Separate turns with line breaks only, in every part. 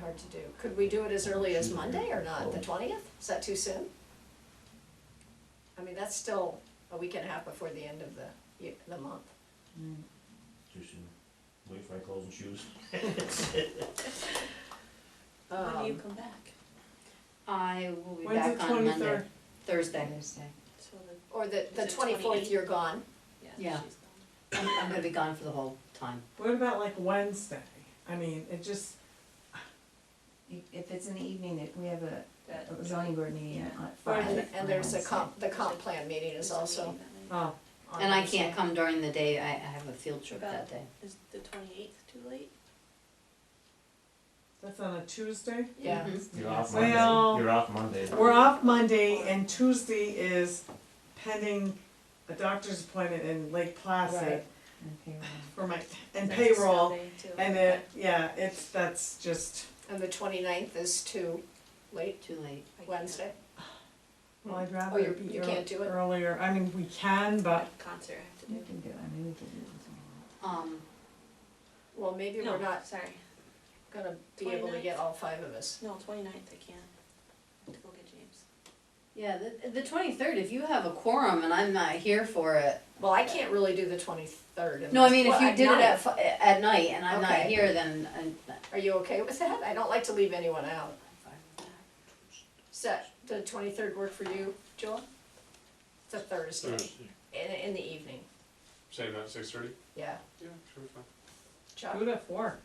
hard to do. Could we do it as early as Monday or not, the twentieth? Is that too soon? I mean, that's still a week and a half before the end of the, ye- the month.
Too soon. Wait for my clothes and shoes.
When do you
Um,
come back?
I will be
When's
back
the
on Monday,
twenty-third?
Thursday.
So the,
Or the, the
Is it
twenty-fourth,
28th?
you're gone.
yeah,
Yeah.
she's gone.
I'm, I'm gonna be gone for the whole time.
What about like Wednesday? I mean, it just,
If it's in the evening, that we have a
That-
a zoning board meeting
Yeah.
at five.
And, and there's a
Wednesday.
comp, the comp plan meeting is
Is the
also,
meeting that night?
oh. on
And I
Wednesday.
can't come during the day, I, I have a field trip that
About-
day.
Is the twenty-eighth too late?
That's on a Tuesday?
yeah.
Mhm.
You're off Monday.
Well-
You're off Monday.
uh,
We're off Monday and Tuesday is pending a doctor's appointment in Lake Placid
Right.
Okay, well.
for my, and
That's
payroll.
Sunday, too.
And it, yeah, it's, that's just,
And the 29th is too late,
Too late.
I can't.
Wednesday.
well, I'd rather
Oh, you're-
be
you can't do
ear-
it?
earlier. I mean, we can,
I
but
have a Concert I have to
We
do.
can do, it. I mean, we can do it. as
Um,
Well, maybe we're
No,
not
Sorry,
gonna be able to get all five of us.
no, twenty-ninth I can't, I have to go get James.
yeah, the, the twenty-third, if you have a quorum and I'm not here for it.
Well, I can't really do the twenty-third.
No, I mean, if you did it at, fi- at night and I'm not
Okay.
here, then, uh, I-
Are you okay with that? I don't like to leave anyone out.
I'm fine with that.
Does that, the twenty-third work for you, Joel? It's a Thursday,
Thursday,
in, in the evening,
say about six thirty?
yeah.
Yeah, sure, fine.
Chuck?
do it at four.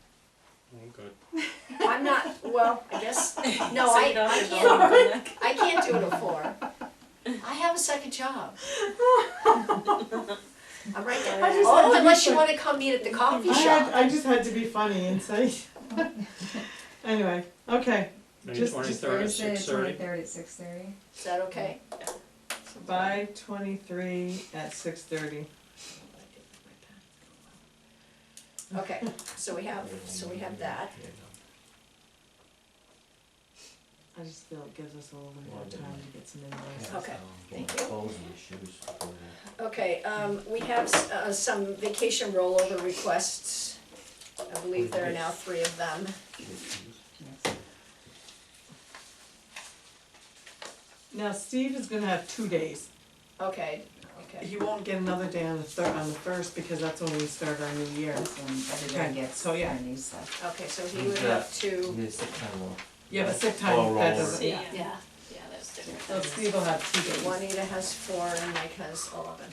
I'm Oh, good.
I'm not, well, I guess, no,
So
Oh, I,
you don't
I
have to
can't,
go back.
I can't do it at four. I have a second job. I'm right there.
I just
Oh,
had to
unless
be
you
sure.
wanna come meet at the coffee
I
shop.
had, I just had to be funny and say. Anyway, okay,
Maybe
Just-
well.
just
twenty-third at
Thursday,
six thirty?
Twenty-third at six thirty.
Is that okay?
by twenty-three at six thirty.
Okay, so we have, so we have that.
Yeah, no.
I just feel it gives us a little bit
Well, I
more
didn't
time
like
to get some invoices.
Yeah,
Okay,
um,
thank
my
you.
Clothes and shoes before that.
Okay, um, we have, s- uh, some vacation rollover requests. I believe there are now three of them.
Shoes.
Now Steve is gonna have two days.
Okay, okay,
He won't get another day on the thir- on the first because that's when we start our new year.
That's when
Okay,
everybody gets
so, yeah.
their new stuff.
okay, so he would have
You
two,
get sick time off.
Yeah, but sick
All
time, that
rollover.
doesn't,
See,
yeah.
yeah,
Yeah,
yeah, that's different.
So Steve will have two days.
Juanita has four and Mike has eleven.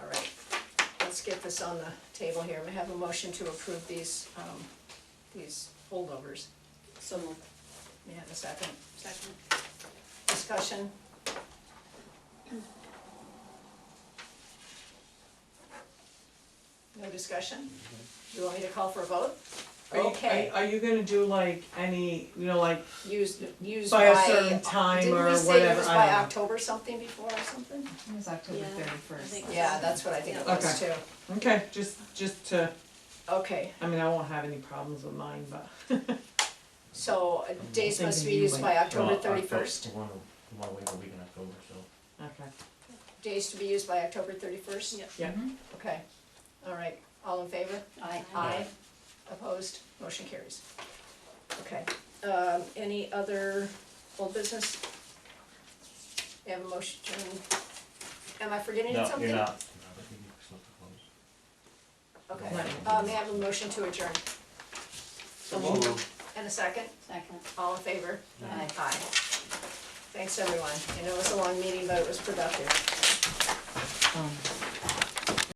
All right, let's get this on the table here. We have a motion to approve these, um, these holdovers.
so moved.
May I have a second?
Second.
Discussion? No discussion? You want me to call for a vote?
Are you-
Okay.
Are, are you gonna do like any, you know, like,
Use, use by.
By a certain time or
Didn't we say it
whatever,
was
I
by
don't know.
October something before or something?
It was October
Yeah, I
thirty-first.
think-
Yeah, that's what I think it was too.
okay, just, just to,
Okay,
I mean, I won't have any problems with mine, but.
so uh, days
Thinking
must be
you
used by
might-
October
Well, Octo-
thirty-first.
One, one week, a week in October, so.
Okay.
Days to be used by October thirty-first?
Yep.
Yeah.
Mhm.
Okay, all right, all in favor?
I,
Aye. Opposed? Motion carries. Okay, um, any other old business? We have a motion, am I forgetting
No,
something?
you're not. No, but you can still close.
Okay,
Right.
uh, may I have a motion to adjourn?
so moved,
And a second,
second,
all in favor?
aye.
Aye. Thanks, everyone. I know it was a long meeting, but it was productive.
Um,